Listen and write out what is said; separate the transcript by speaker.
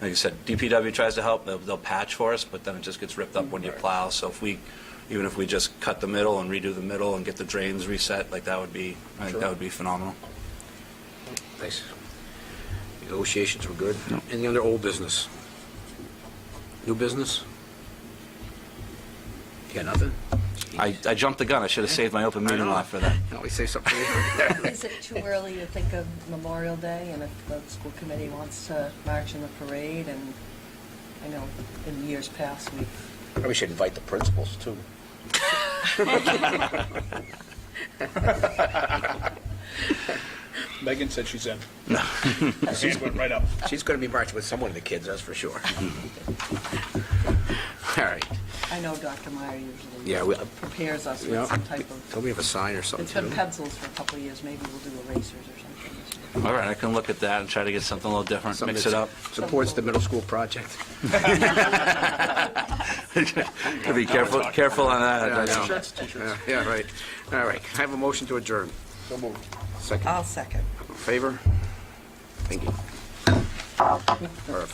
Speaker 1: like I said, DPW tries to help, they'll, they'll patch for us, but then it just gets ripped up when you plow. So if we, even if we just cut the middle and redo the middle and get the drains reset, like that would be, I think that
Speaker 2: Sure.
Speaker 1: would be phenomenal.
Speaker 2: Nice. Negotiations were good. Any other old business? New business? You got nothing?
Speaker 1: I, I jumped the gun, I should have saved my open meeting
Speaker 2: know.
Speaker 1: law for that.
Speaker 2: You always say something. later.
Speaker 3: Is it too early to think of Memorial Day and if the school committee wants to march in the parade? And I know in years past, we've,
Speaker 2: Probably should invite the principals, too.
Speaker 4: Megan said she's in. She's went right up.
Speaker 2: She's going to be marching with someone of the kids, that's for sure. All right.
Speaker 3: I know Dr. Meyer usually
Speaker 2: Yeah, we- uh,
Speaker 3: prepares us
Speaker 2: Yeah. Oh,
Speaker 3: with some type of,
Speaker 2: Don't we have a sign or something?
Speaker 3: it's been
Speaker 2: too?
Speaker 3: pencils for a couple of years, maybe we'll do erasers or something this year.
Speaker 1: All right, I can look at that and try to get something a little different,
Speaker 2: Something
Speaker 1: mix
Speaker 2: that
Speaker 1: it up.
Speaker 2: Supports the middle school project.
Speaker 1: Be careful, careful on that.
Speaker 2: Yeah, I know.
Speaker 4: Shirts, t-shirts.
Speaker 2: Yeah, right. All right. I have a motion to adjourn.
Speaker 4: So moved.
Speaker 3: Uh,
Speaker 2: Second,
Speaker 3: I'll second.
Speaker 2: favor? Thank you. Perfect.